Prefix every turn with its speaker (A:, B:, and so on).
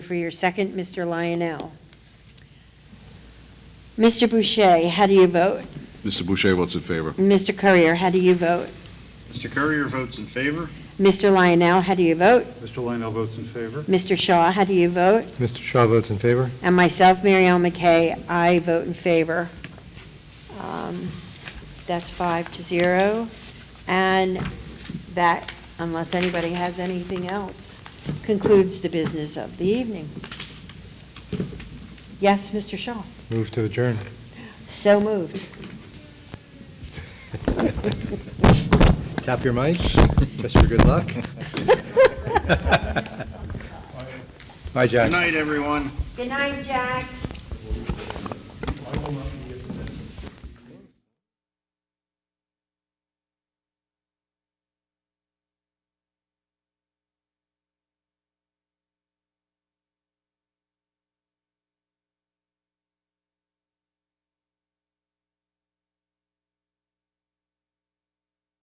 A: for your second, Mr. Lionel. Mr. Boucher, how do you vote?
B: Mr. Boucher votes in favor.
A: Mr. Courier, how do you vote?
C: Mr. Courier votes in favor.
A: Mr. Lionel, how do you vote?
D: Mr. Lionel votes in favor.
A: Mr. Shaw, how do you vote?
E: Mr. Shaw votes in favor.
A: And myself, Mary Ellen McKay, I vote in favor. Um, That's five to zero. And that, unless anybody has anything else, concludes the business of the evening. Yes, Mr. Shaw?
E: Move to adjourn.
A: So moved.
E: Tap your mic, just for good luck. Bye, Jack.
C: Good night, everyone.
A: Good night, Jack.
D: I will not be